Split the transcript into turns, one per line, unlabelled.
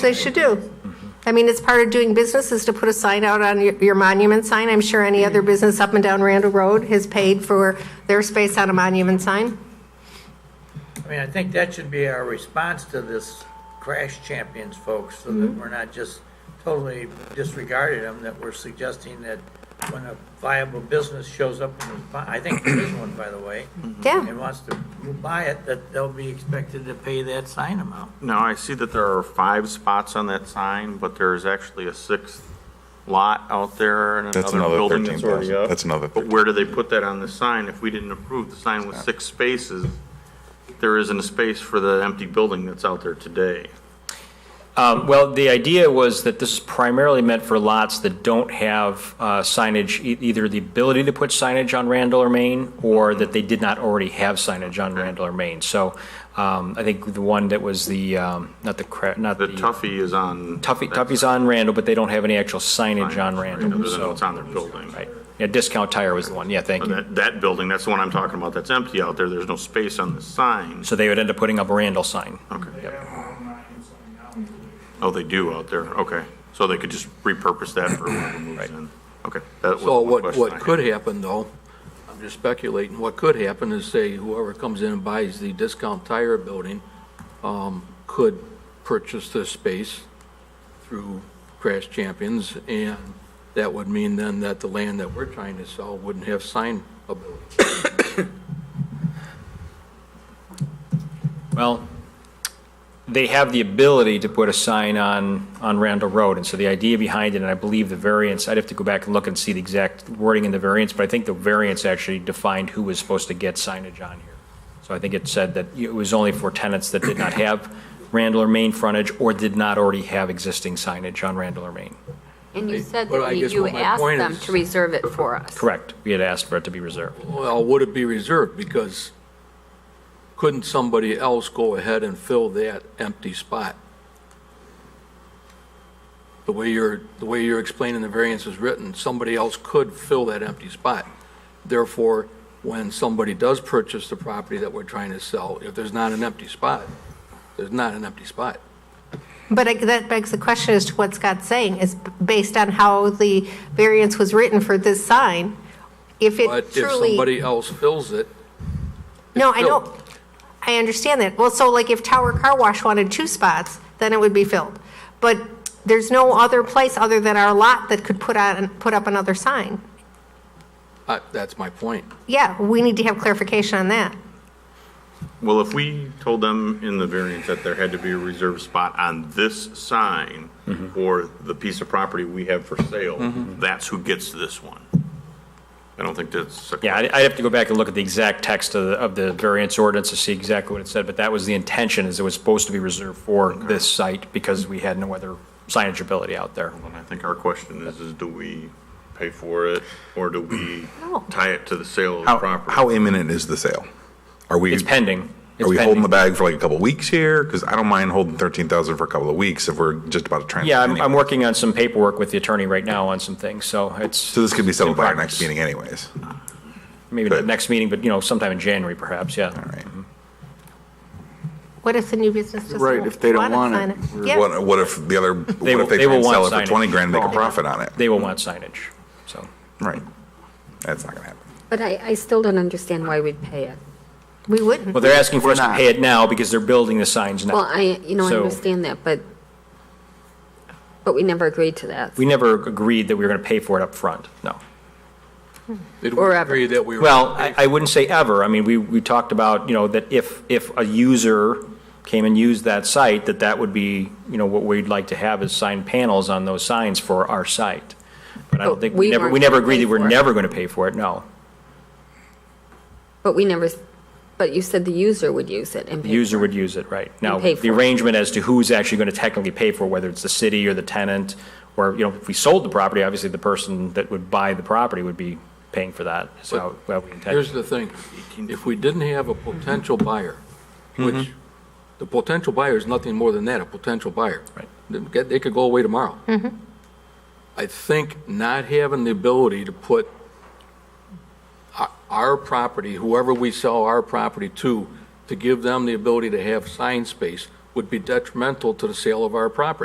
They should do. I mean, it's part of doing business is to put a sign out on your your monument sign. I'm sure any other business up and down Randall Road has paid for their space on a monument sign.
I mean, I think that should be our response to this Crash Champions folks, so that we're not just totally disregarding them, that we're suggesting that when a viable business shows up in the, I think there is one, by the way,
Yeah,
and wants to buy it, that they'll be expected to pay that sign amount.
Now, I see that there are five spots on that sign, but there's actually a sixth lot out there and
That's
another
another
building that's
13,000.
already up.
That's another
But where do they put that on the sign? If we didn't approve the sign with six spaces, there isn't a space for the empty building that's out there today.
Um, Well, the idea was that this is primarily meant for lots that don't have uh, signage, e- either the ability to put signage on Randall or Main, or that they did not already have signage on Randall or Main. So um, I think the one that was the, um, not the, cra- not the.
The Tuffy is on.
Tuffy, Tuffy's on Randall, but they don't have any actual signage on
Right,
Randall,
Other than
so.
what's on their building.
Right. Yeah, Discount Tire was the one, yeah, thank
But
you.
That, that building, that's the one I'm talking about, that's empty out there. There's no space on the sign.
So they would end up putting up a Randall sign.
Oh, they do out there, okay. So they could just repurpose that for whoever moves in. Okay. that was
So
one
what,
question I
what
had.
could happen though, I'm just speculating, what could happen is say whoever comes in and buys the discount tire building, um, could purchase this space through Crash Champions and that would mean then that the land that we're trying to sell wouldn't have sign ability.
Well, they have the ability to put a sign on, on Randall Road, and so the idea behind it, and I believe the variance, I'd have to go back and look and see the exact wording in the variance, but I think the variance actually defined who was supposed to get signage on here. So I think it said that it was only for tenants that did not have Randall or Main frontage or did not already have existing signage on Randall or Main.
And you said
Well,
that
I
we-
guess
you
what my
asked
point
them
is-
to reserve it for us.
Correct. We had asked for it to be reserved.
Well, would it be reserved? Because couldn't somebody else go ahead and fill that empty spot? The way you're, the way you're explaining the variance is written, somebody else could fill that empty spot. Therefore, when somebody does purchase the property that we're trying to sell, if there's not an empty spot, there's not an empty spot.
but I- that begs the question as to what Scott's saying is based on how the variance was written for this sign. If
But
it
if
truly.
somebody else fills it,
No, I
filled.
know, I understand that. Well, so like if Tower Car Wash wanted two spots, then it would be filled. But there's no other place other than our lot that could put on, put up another sign.
uh, that's my point.
Yeah, we need to have clarification on that.
Well, if we told them in the variance that there had to be a reserved spot on this sign or the piece of property we have for sale, that's who gets this one. I don't think that's. a-
Yeah, I'd I'd have to go back and look at the exact text of the, of the variance ordinance to see exactly what it said, but that was the intention, is it was supposed to be reserved for this site because we had no other signage ability out there.
And I think our question is, is do we pay for it or do we
No.
tie it to the sale of the
How,
property?
how imminent is the sale? Are we?
It's pending. It's
Are we holding
pending.
the bag for like a couple of weeks here? Because I don't mind holding thirteen thousand for a couple of weeks if we're just about to transfer.
Yeah, I'm, I'm
anyway.
working on some paperwork with the attorney right now on some things, so it's.
So this could be settled
in
by our
progress.
next meeting anyways. All
Maybe not
Good.
next meeting, but, you know, sometime in January perhaps, yeah.
right.
What if the new business doesn't want
Right, if they don't want
to
it,
sign it?
we're-
Yeah,
What, what if the other, what
will-
if they
they
try and
will
sell it
want
for
signage.
twenty grand, and make a profit on it?
They will want signage, so.
Right. That's not gonna happen.
But I, I still don't understand why we'd pay it.
we wouldn't.
Well, they're asking for us to
not.
pay it now because they're building the signs now.
Well, I, you know, I
So-
understand that, but, but we never agreed to that.
We never agreed that we were going to pay for it up front. no.
Did
Or
we
ever.
agree that we were?
Well, I, I wouldn't say ever. I mean, we, we talked about, you know, that if, if a user came and used that site, that that would be, you know, what we'd like to have is signed panels on those signs for our site. But I don't
But
think, we
we
never, we
weren't
never
gonna
agreed
pay
that we're
for it.
never going to pay for it, no.
But we never, s- but you said the user would use it and
The
pay.
user
for it.
would use it, right. Now,
pay
the
for it.
arrangement as to who's actually going to technically pay for it, whether it's the city or the tenant, or, you know, if we sold the property, obviously the person that would buy the property would be paying for that, is how, how we intend.
Here's the thing, if we didn't have a potential buyer, which, the potential buyer is nothing more than that, a potential buyer.
Right.
They could- They could go away tomorrow. I think not having the ability to put our- our property, whoever we sell our property to, to give them the ability to have sign space would be detrimental to the sale of our property.